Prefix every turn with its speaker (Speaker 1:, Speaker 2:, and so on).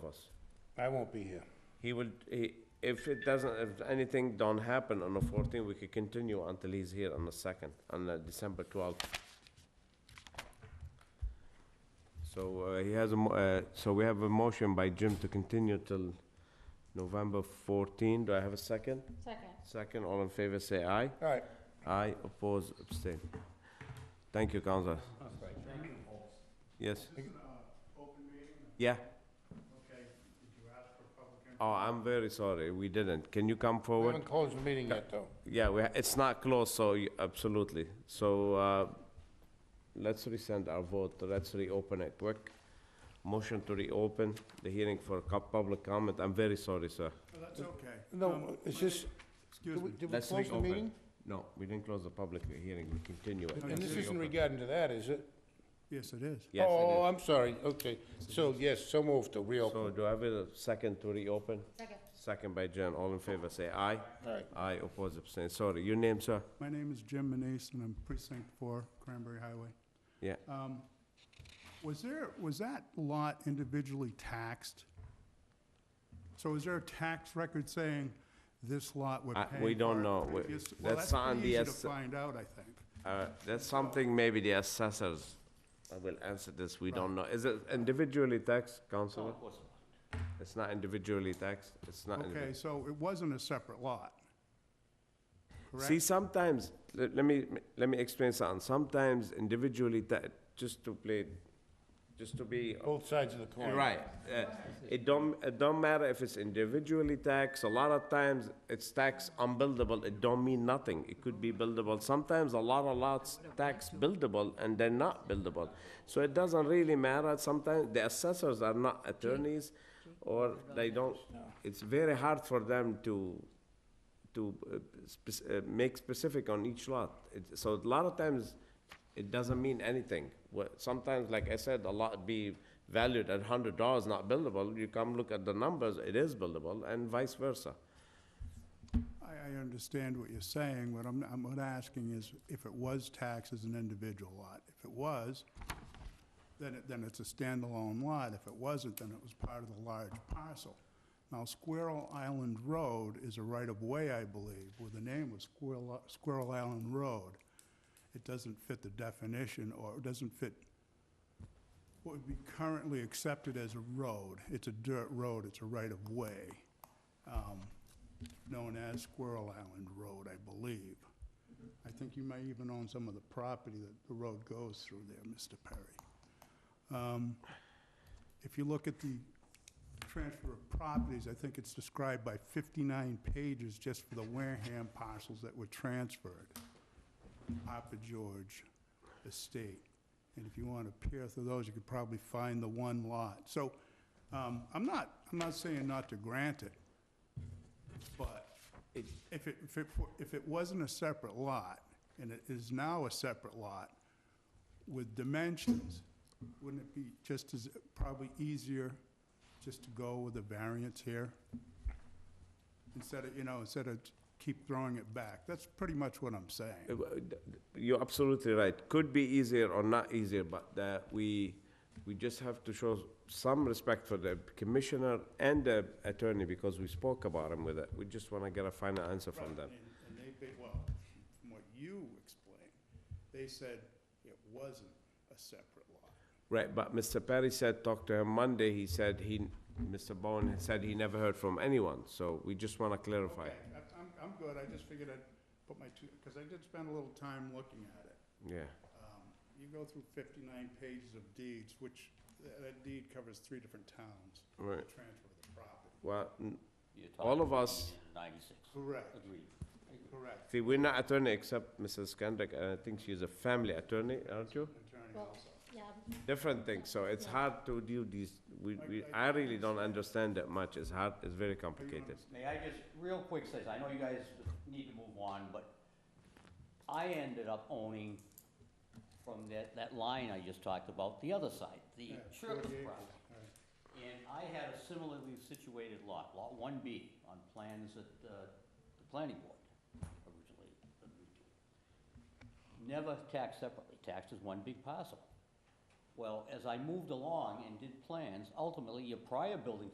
Speaker 1: us.
Speaker 2: I won't be here.
Speaker 1: He will, he, if it doesn't, if anything don't happen on the fourteenth, we could continue until he's here on the second, on the December twelfth. So, uh, he has a, mo- uh, so we have a motion by Jim to continue till November fourteen. Do I have a second?
Speaker 3: Second.
Speaker 1: Second, all in favor, say aye.
Speaker 2: All right.
Speaker 1: Aye, oppose, abstain. Thank you, Counselor. Yes? Yeah. Oh, I'm very sorry, we didn't. Can you come
Speaker 2: We
Speaker 1: forward?
Speaker 2: haven't closed the meeting yet, though.
Speaker 1: Yeah, we, ha- it's not closed, so you- absolutely. So, uh, let's resend our vote, let's reopen it quick. Motion to reopen the hearing for co- public comment. I'm very sorry, sir.
Speaker 4: That's okay.
Speaker 2: No, is this,
Speaker 4: Excuse
Speaker 2: did we-
Speaker 4: me.
Speaker 2: did we
Speaker 1: Let's
Speaker 2: close the
Speaker 1: reopen.
Speaker 2: meeting?
Speaker 1: No, we didn't close the public hearing, we continue it.
Speaker 2: And this
Speaker 1: Let's
Speaker 2: isn't
Speaker 1: reopen.
Speaker 2: regarding to that, is it?
Speaker 4: Yes, it is.
Speaker 1: Yes, it is.
Speaker 2: Oh, I'm sorry, okay. So, yes, so moved to reopen.
Speaker 1: So do I have a second to reopen?
Speaker 3: Second.
Speaker 1: Second by Jen, all in favor, say aye.
Speaker 2: Aye.
Speaker 1: Aye, oppose, abstain, sorry, your name, sir?
Speaker 4: My name is Jim Manise, and I'm precinct four, Cranberry Highway.
Speaker 1: Yeah,
Speaker 4: Uh, Was there, was that lot individually taxed? So is there a tax record saying this lot would
Speaker 1: I-
Speaker 4: pay?
Speaker 1: we don't know. We-
Speaker 4: Well,
Speaker 1: that's
Speaker 4: that's
Speaker 1: on the
Speaker 4: pretty easy to
Speaker 1: ass-
Speaker 4: find out, I think.
Speaker 1: uh, that's something maybe the assessors uh, will answer this, we don't know. Is it individually taxed, councilor? It's not individually taxed, it's not. individ-
Speaker 4: Okay, so it wasn't a separate lot?
Speaker 1: See,
Speaker 4: Correct?
Speaker 1: sometimes, let, let me, let me explain something, sometimes individually ta- just to play, just to be
Speaker 2: Both sides of the coin.
Speaker 1: Right. Uh, It don't, it don't matter if it's individually taxed, a lot of times it's taxed unbuildable, it don't mean nothing, it could be buildable. Sometimes a lot of lots tax buildable and they're not buildable. So it doesn't really matter, sometimes the assessors are not attorneys or they don't, it's very hard for them to, to uh, spec- uh, make specific on each lot. It- So a lot of times, it doesn't mean anything. What- Sometimes, like I said, a lot be valued at hundred dollars, not buildable. You come look at the numbers, it is buildable, and vice versa. Uh,
Speaker 4: I, I understand what you're saying, but I'm, I'm, what I'm asking is if it was taxed as an individual lot. If it was, then it, then it's a standalone lot. If it wasn't, then it was part of the large parcel. Now Squirrel Island Road is a right-of-way, I believe, with the name of Squirrel, Squirrel Island Road. It doesn't fit the definition, or it doesn't fit what would be currently accepted as a road. It's a dirt road, it's a right-of-way, um, known as Squirrel Island Road, I believe. I think you may even own some of the property that the road goes through there, Mr. Perry. Um, If you look at the transfer of properties, I think it's described by 59 pages just for the Wareham parcels that were transferred. Papa George Estate. And if you want to peer through those, you could probably find the one lot. So um, I'm not, I'm not saying not to grant it, but if it, if it, if it wasn't a separate lot, and it is now a separate lot with dimensions, wouldn't it be just as, probably easier just to go with a variance here? Instead of, you know, instead of keep throwing it back. That's pretty much what I'm saying.
Speaker 1: Uh, w- d- d- You're absolutely right. Could be easier or not easier, but uh, we, we just have to show some respect for the commissioner and the attorney because we spoke about him with it. We just want to get a final answer from them.
Speaker 4: Right, And and they, ba- well, from what you explained, they said it wasn't a separate lot.
Speaker 1: Right, but Mr. Perry said, talked to him Monday, he said he, Mr. Bowen had said he never heard from anyone, so we just wanna clarify.
Speaker 4: Okay, I- I'm, I'm good, I just figured I'd put my two, because I did spend a little time looking at it.
Speaker 1: Yeah,
Speaker 4: Um, You go through fifty-nine pages of deeds, which, th- that deed covers three different towns,
Speaker 1: right,
Speaker 4: the transfer of the property.
Speaker 1: well, n-
Speaker 5: You're
Speaker 1: All
Speaker 5: talking
Speaker 1: of
Speaker 5: about
Speaker 1: us-
Speaker 5: 1996.
Speaker 4: Correct,
Speaker 5: Agreed.
Speaker 4: correct.
Speaker 1: see, we're not attorney except Mrs. Kendrick, and I think she's a family attorney, aren't you?
Speaker 4: Attorney
Speaker 3: Well,
Speaker 4: also.
Speaker 3: Yeah,
Speaker 1: Different thing, so it's hard to do these, we, we, I really don't understand that much, it's hard, it's very complicated.
Speaker 5: May I just, real quick, say, I know you guys need to move on, but I ended up owning from that, that line I just talked about, the other side, the
Speaker 4: Yeah,
Speaker 5: surplus
Speaker 4: 48
Speaker 5: property.
Speaker 4: all right.
Speaker 5: And I had a similarly situated lot, Lot 1B, on plans at uh, the planning board originally. originally. Never taxed separately, taxed as one big parcel. Well, as I moved along and did plans, ultimately, your prior building